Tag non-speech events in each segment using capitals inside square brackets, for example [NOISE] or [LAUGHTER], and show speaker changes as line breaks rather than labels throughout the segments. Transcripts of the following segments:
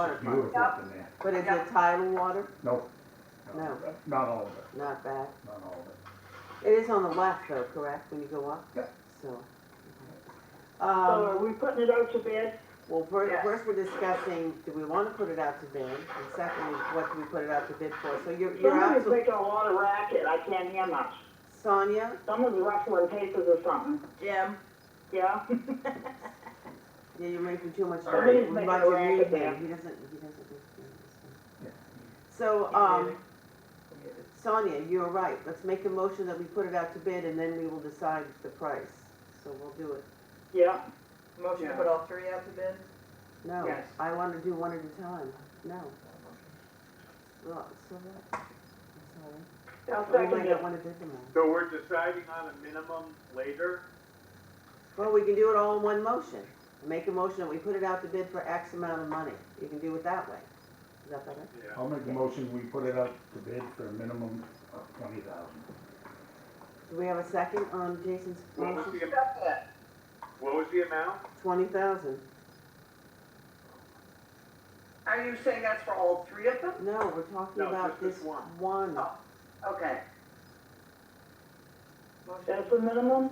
Waterfront,
Beautiful up in there.
but is it tidal water?
No.
No.
Not all of it,
Not bad.
not all of it.
It is on the left though, correct, when you go up?
Yeah.
So.
So
Um,
are we putting it out to bid?
well, first,
Yes.
first we're discussing, do we wanna put it out to bid? And secondly, what do we put it out to bid for? So you're, you're
Somebody's
absolutely,
making a lot of racket, I can't hear much.
Sonia,
Someone's ruffling papers or something,
Jim,
yeah?
yeah, you're making too much
Somebody's
noise.
making
Roger
a racket
Reed,
there.
He doesn't, he doesn't. listen.
Yeah.
So, um, Sonia, you're right. Let's make a motion that we put it out to bid and then we will decide the price. So we'll do it.
Yeah,
motion to
Yeah.
put all three out to bid?
No,
Yes.
I want to do one at a time. No. Well, so what? I'm
I'll
sorry. We
second
might not
it.
want to bid them all.
So we're deciding on a minimum later?
Well, we can do it all in one motion. Make a motion that we put it out to bid for X amount of money. You can do it that way. Is that better?
Yeah.
I'll make a motion, we put it up to bid for a minimum of twenty thousand.
Do we have a second on Jason's
What was
motion?
the, am- what was the amount?
Twenty thousand.
Are you saying that's for all three of them?
No, we're talking
No,
about
just this
this
one.
one.
Oh. Okay.
Motion,
that's the minimum?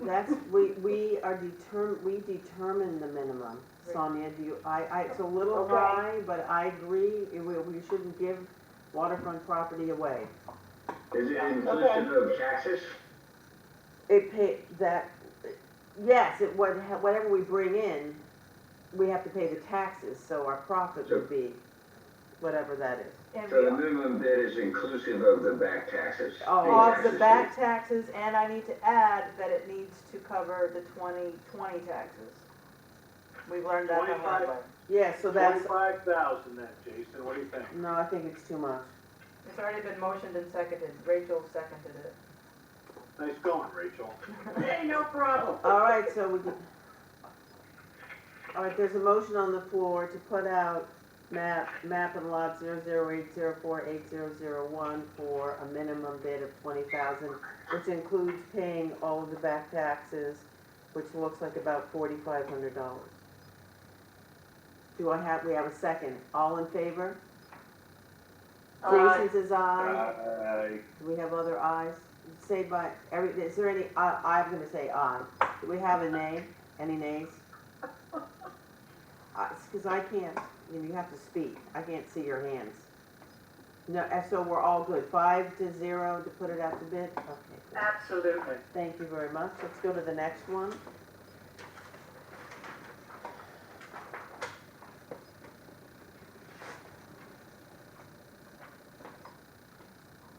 That's, we, we are determ, we determine the minimum. Sonia, do you, I, I, it's a little
Okay.
high, but I agree, we, we shouldn't give waterfront property away.
Is it
Okay.
inclusive of taxes?
It pay, that, yes, it, what- whatever we bring in, we have to pay the taxes, so our profit would be whatever that is.
and
So the
we,
minimum bid is inclusive of the back taxes?
Oh,
off the
Taxes.
back taxes, and I need to add that it needs to cover the twenty twenty taxes. We've learned that the hard way.
Yeah, so that's,
Twenty-five thousand then, Jason, what do you think?
no, I think it's too much.
It's already been motioned and seconded, Rachel seconded it.
Nice going, Rachel.
Hey, no
[LAUGHS]
problem.
All right, so we can, all right, there's a motion on the floor to put out map, map and lot zero zero eight zero four eight zero zero one for a minimum bid of twenty thousand, which includes paying all of the back taxes, which looks like about forty-five hundred dollars. Do I have, we have a second, all in favor?
Aye.
Jason says aye,
Aye.
do we have other ayes? Say by, every, is there any, I, I'm gonna say aye, do we have a nay, any nays? Uh, it's cause I can't, you know, you have to speak, I can't see your hands. No, and so we're all good, five to zero to put it out to bid, okay, good.
Absolutely.
Thank you very much. Let's go to the next one.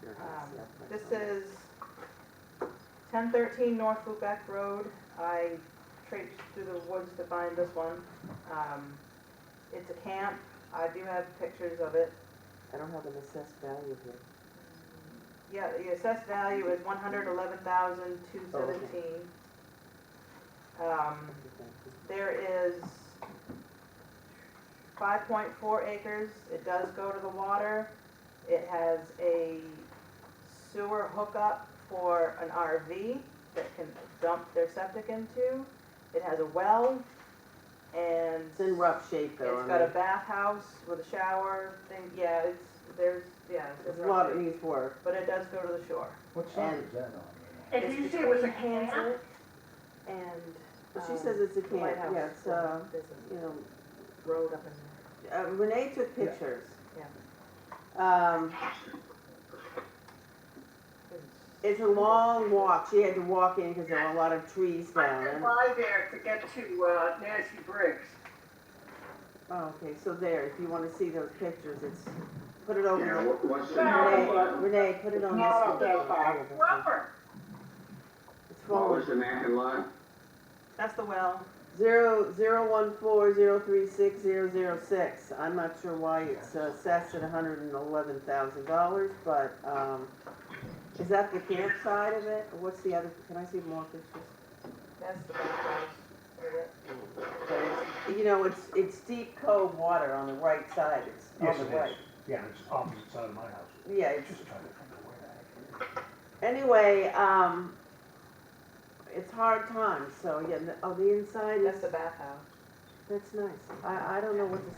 Um, This is ten thirteen North Lubec Road. I traipsed through the woods to find this one. Um, It's a camp. I do have pictures of it.
I don't have an assessed value here.
Yeah, the assessed value is one hundred eleven thousand two
Oh,
seventeen. Um, there is five point four acres, it does go to the water, it has a sewer hookup for an RV that can dump their septic into, it has a well, and.
It's in rough shape though.
It's
I
got a
mean,
bathhouse with a shower thing, yeah, it's, there's, yeah, it's
There's a lot that
rough,
needs work.
but it does go to the shore.
What side
And-
is that on?
And
It's
you say it was a
between
camp?
Hanson And.
But she
um,
says it's a
the
camp,
lighthouse.
yeah, it's, uh,
There's
you know,
a road up in there.
Uh, Renee took pictures.
Yeah.
Um,
It's-
it's a long walk. She had to walk in because there were a lot of trees
I
down.
went
and-
by there to get to uh, Nancy Briggs.
Oh, Okay, so there, if you wanna see those pictures, it's, put it
Yeah,
over,
what- what's the minimum,
Renee, Renee, put it on this
Not up
one.
that far.
Rubber.
It's
what was
falling,
the Mac and lot?
That's the well.
zero, zero one four, zero three six, zero zero six, I'm not sure why it's assessed at hundred and eleven thousand dollars, but, um, is that the campsite of it, or what's the other, can I see more pictures?
That's the bathhouse. with it.
But it's, you know, it's, it's deep cove water on the right side, it's
Yes,
on the
it is.
right.
Yeah, it's opposite side of my house.
Yeah, it's,
Just trying to think of where that is.
Anyway, um, it's hard times, so yeah, the- oh, the inside
That's
is,
the bathhouse.
That's nice. I, I don't know what to